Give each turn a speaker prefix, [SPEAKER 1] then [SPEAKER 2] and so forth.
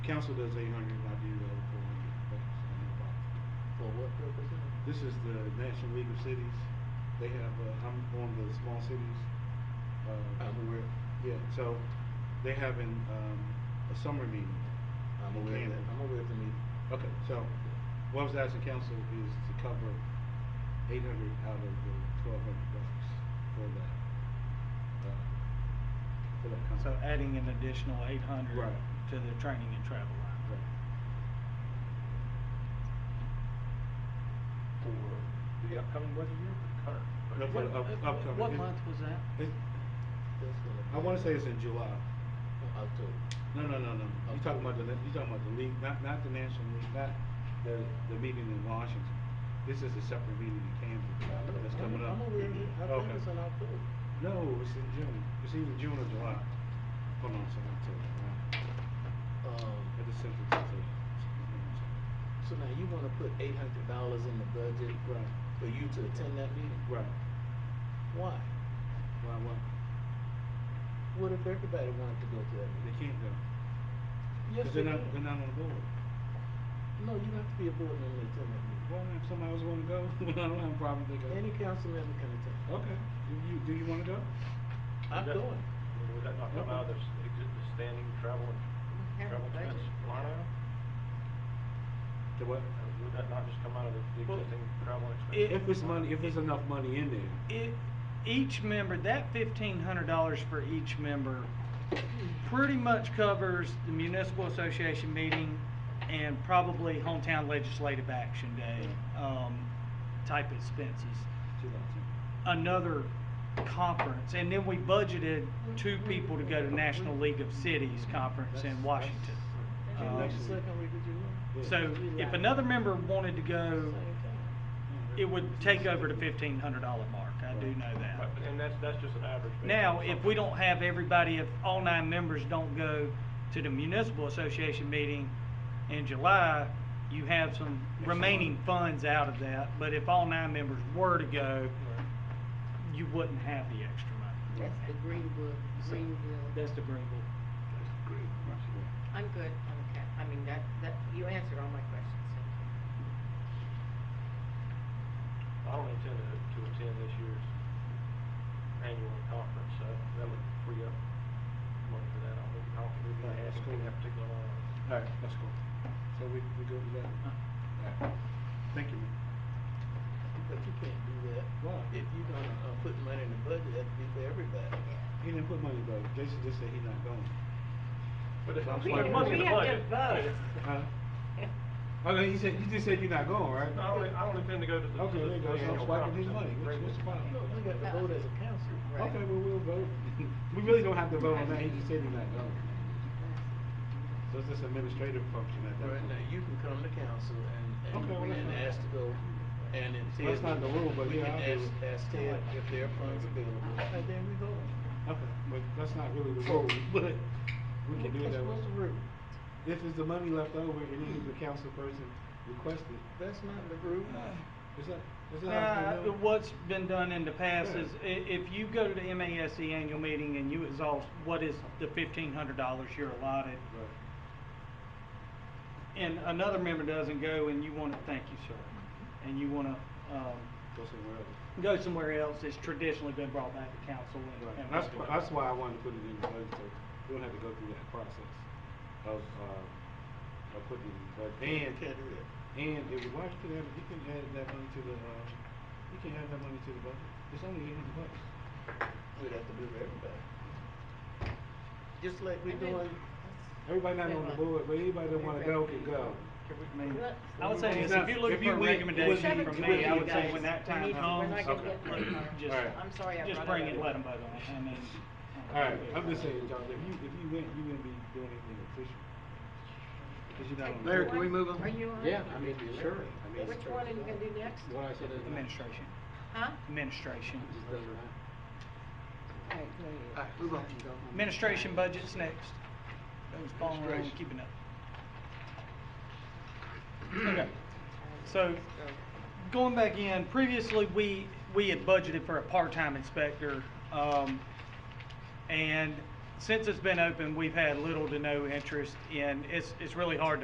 [SPEAKER 1] council does eight hundred, I do the other four hundred, but it's not a problem.
[SPEAKER 2] For what purpose?
[SPEAKER 1] This is the National League of Cities, they have, uh, I'm on the small cities, uh,
[SPEAKER 2] I'm aware.
[SPEAKER 1] yeah, so they having, um, a summer meeting.
[SPEAKER 2] I'm
[SPEAKER 1] in
[SPEAKER 2] aware of that,
[SPEAKER 1] Camden.
[SPEAKER 2] I'm aware of the meeting.
[SPEAKER 1] Okay, so what I was asking council is to cover eight hundred out of the twelve hundred bucks for that, uh, for that concept.
[SPEAKER 3] So adding an additional eight hundred
[SPEAKER 1] Right.
[SPEAKER 3] to the training and travel line.
[SPEAKER 4] for the upcoming budget year, or current?
[SPEAKER 1] No,
[SPEAKER 4] budget
[SPEAKER 1] for the
[SPEAKER 4] year?
[SPEAKER 1] up-
[SPEAKER 3] What-
[SPEAKER 1] upcoming.
[SPEAKER 3] What
[SPEAKER 1] It-
[SPEAKER 3] month was that?
[SPEAKER 1] It,
[SPEAKER 2] That's gonna
[SPEAKER 1] I
[SPEAKER 2] be-
[SPEAKER 1] wanna say it's in July. Oh,
[SPEAKER 2] October.
[SPEAKER 1] No, no, no, no, you talking about the, you talking about the league, not, not the national league, not the, the meeting in Washington. This is a separate meeting in Kansas that's coming up.
[SPEAKER 2] I'm aware of it, I think
[SPEAKER 1] Okay.
[SPEAKER 2] it's in October.
[SPEAKER 1] No, it's in June, it's either June or July. Hold on, sorry, I'll tell you. I
[SPEAKER 2] Um,
[SPEAKER 1] just sent it to the.
[SPEAKER 2] so now you wanna put eight hundred dollars in the budget
[SPEAKER 1] Right,
[SPEAKER 2] for you to attend that meeting?
[SPEAKER 1] right.
[SPEAKER 2] Why?
[SPEAKER 1] Why, why?
[SPEAKER 2] What if everybody wanted to go to that
[SPEAKER 1] They
[SPEAKER 2] meeting?
[SPEAKER 1] can't go. 'Cause
[SPEAKER 2] Yes,
[SPEAKER 1] they're
[SPEAKER 2] they
[SPEAKER 1] not, they're
[SPEAKER 2] can.
[SPEAKER 1] not on the board.
[SPEAKER 2] No, you have to be a board member to attend that meeting.
[SPEAKER 1] Well, if somebody else wanna go, I don't have a problem, they go.
[SPEAKER 2] Any council member can attend.
[SPEAKER 1] Okay, do you, do you wanna go?
[SPEAKER 2] I'm
[SPEAKER 4] Would that-
[SPEAKER 2] going.
[SPEAKER 4] Would that not come out of the s- exi- the standing travel, and- travel expense line item?
[SPEAKER 1] To what?
[SPEAKER 4] Uh, Would that not just come out of the the
[SPEAKER 3] Well,
[SPEAKER 4] existing travel expense?
[SPEAKER 1] If it's money, if there's enough money in there.
[SPEAKER 3] It, each member, that fifteen hundred dollars for each member pretty much covers the municipal association meeting and probably hometown legislative action day, um, type expenses. Another conference, and then we budgeted two people to go to National League of Cities Conference in Washington.
[SPEAKER 2] Okay,
[SPEAKER 3] Um,
[SPEAKER 2] next second week of July.
[SPEAKER 3] So if another member wanted to go,
[SPEAKER 2] Same time.
[SPEAKER 3] it would take over the fifteen hundred dollar mark, I do know that.
[SPEAKER 4] Right, but- And that's, that's just an average. based
[SPEAKER 3] Now,
[SPEAKER 4] on
[SPEAKER 3] if
[SPEAKER 4] something.
[SPEAKER 3] we don't have everybody, if all nine members don't go to the municipal association meeting in July, you have some
[SPEAKER 1] Yes,
[SPEAKER 3] remaining
[SPEAKER 1] sir.
[SPEAKER 3] funds out of that, but if all nine members were to go, you wouldn't have the extra money.
[SPEAKER 5] That's the Greenwood, Greenville.
[SPEAKER 3] That's the Greenville.
[SPEAKER 5] I'm good, I'm okay. I mean, that, that, you answered all my questions, thank you.
[SPEAKER 4] I don't intend to, to attend this year's annual conference, so that would free up money for that. I don't, I don't think we'd
[SPEAKER 1] Right,
[SPEAKER 4] be
[SPEAKER 1] that's
[SPEAKER 4] asking
[SPEAKER 1] cool.
[SPEAKER 4] for that particular line. item.
[SPEAKER 1] Alright, let's go. So we, we good with
[SPEAKER 3] Uh-huh.
[SPEAKER 1] that? Alright. Thank you. ma'am.
[SPEAKER 2] But you can't do that.
[SPEAKER 1] Why?
[SPEAKER 2] If you're gonna, uh, put money in the budget, that'd be for everybody.
[SPEAKER 1] He didn't put money though, Jason just said he's not going.
[SPEAKER 4] But if
[SPEAKER 1] Well,
[SPEAKER 4] I'm
[SPEAKER 1] we
[SPEAKER 4] putting
[SPEAKER 1] have-
[SPEAKER 4] money
[SPEAKER 1] we
[SPEAKER 4] in the
[SPEAKER 5] have to
[SPEAKER 4] budget.
[SPEAKER 5] vote.
[SPEAKER 1] Huh? Oh, no, you said, you just said you're not going, right?
[SPEAKER 4] I don't, I don't intend to go to
[SPEAKER 1] Okay,
[SPEAKER 4] the. to
[SPEAKER 1] there you go,
[SPEAKER 4] the
[SPEAKER 1] so I'm
[SPEAKER 4] annual
[SPEAKER 1] swiping his
[SPEAKER 4] conference.
[SPEAKER 1] money, what's, what's the
[SPEAKER 2] No,
[SPEAKER 1] problem?
[SPEAKER 2] we got to vote as a council.
[SPEAKER 5] Right.
[SPEAKER 1] Okay, well, we'll vote. We really don't have to vote on that, he just said he's not going. So it's just administrative function at that
[SPEAKER 2] Right
[SPEAKER 1] point.
[SPEAKER 2] now, you can come to council and,
[SPEAKER 1] Okay, well,
[SPEAKER 2] and,
[SPEAKER 1] that's
[SPEAKER 2] and
[SPEAKER 1] fine.
[SPEAKER 2] ask to go, and if Ted.
[SPEAKER 1] Well, that's not the rule, but
[SPEAKER 2] we
[SPEAKER 1] yeah,
[SPEAKER 2] can
[SPEAKER 1] I'll do
[SPEAKER 2] ask-
[SPEAKER 1] it.
[SPEAKER 2] Ask Ted if there are funds available, and then we vote.
[SPEAKER 1] Okay, but that's not really the rule, but we can do it
[SPEAKER 2] That's-
[SPEAKER 1] that way.
[SPEAKER 2] What's the rule?
[SPEAKER 1] If it's the money left over, it is the council person requested.
[SPEAKER 2] That's not the rule.
[SPEAKER 1] Is that, is
[SPEAKER 3] Nah,
[SPEAKER 1] that? how it's been done?
[SPEAKER 2] Uh,
[SPEAKER 3] uh, what's been done in the past
[SPEAKER 1] Yeah.
[SPEAKER 3] is, i- if you go to the MASC annual meeting and you exhaust what is the fifteen hundred dollars you're allotted,
[SPEAKER 1] Right.
[SPEAKER 3] and another member doesn't go and you wanna, thank you, sir, and you wanna, um,
[SPEAKER 1] Go somewhere else.
[SPEAKER 3] go somewhere else, it's traditionally been brought back to council and.
[SPEAKER 1] Right.
[SPEAKER 3] and
[SPEAKER 1] That's,
[SPEAKER 3] voted on.
[SPEAKER 1] that's why I wanted to put it in the budget, so we don't have to go through that process of, uh, of putting it in the
[SPEAKER 2] You
[SPEAKER 1] budget.
[SPEAKER 2] can't do that.
[SPEAKER 1] And, and if, why you can add, you can add that money to the, uh, you can add that money to the budget. It's only eight hundred bucks.
[SPEAKER 2] We'd have to do it for everybody. Just like we
[SPEAKER 5] I mean,
[SPEAKER 2] doing,
[SPEAKER 1] Everybody not on the
[SPEAKER 5] Everybody.
[SPEAKER 1] board, but anybody that wanna go can go.
[SPEAKER 3] I mean,
[SPEAKER 5] Look,
[SPEAKER 3] I would say
[SPEAKER 1] when
[SPEAKER 3] this,
[SPEAKER 1] you-
[SPEAKER 3] if you're looking
[SPEAKER 1] if you
[SPEAKER 3] for a
[SPEAKER 1] win-
[SPEAKER 3] recommendation
[SPEAKER 1] when
[SPEAKER 3] from
[SPEAKER 1] you-
[SPEAKER 3] me, I
[SPEAKER 1] when
[SPEAKER 3] would
[SPEAKER 1] you
[SPEAKER 3] say
[SPEAKER 1] guys-
[SPEAKER 3] when that
[SPEAKER 5] when
[SPEAKER 3] time
[SPEAKER 5] you-
[SPEAKER 3] comes,
[SPEAKER 5] when I
[SPEAKER 1] get that
[SPEAKER 5] money, I'll-
[SPEAKER 3] just.
[SPEAKER 1] Alright. I'm
[SPEAKER 5] sorry I
[SPEAKER 3] Just
[SPEAKER 5] brought it
[SPEAKER 3] bring it,
[SPEAKER 5] up.
[SPEAKER 3] let them vote on it, I mean.
[SPEAKER 1] Alright, I'm just saying, John, if you, if you win, you wouldn't be doing anything official. Cause you're not on the
[SPEAKER 5] Larry,
[SPEAKER 1] board.
[SPEAKER 5] can we move on? Are you on?
[SPEAKER 6] Yeah, I mean, sure. I mean,
[SPEAKER 5] Which one are you gonna do next?
[SPEAKER 6] What I said is.
[SPEAKER 3] Administration,
[SPEAKER 5] Huh?
[SPEAKER 3] administration.
[SPEAKER 6] It just doesn't matter.
[SPEAKER 5] All
[SPEAKER 6] All right, move on.
[SPEAKER 3] Administration budget's next. Those following along,
[SPEAKER 6] Administration.
[SPEAKER 3] keeping up. Okay, so going back in, previously, we, we had budgeted for a part-time inspector, um, and since it's been open, we've had little to no interest in, it's, it's really hard to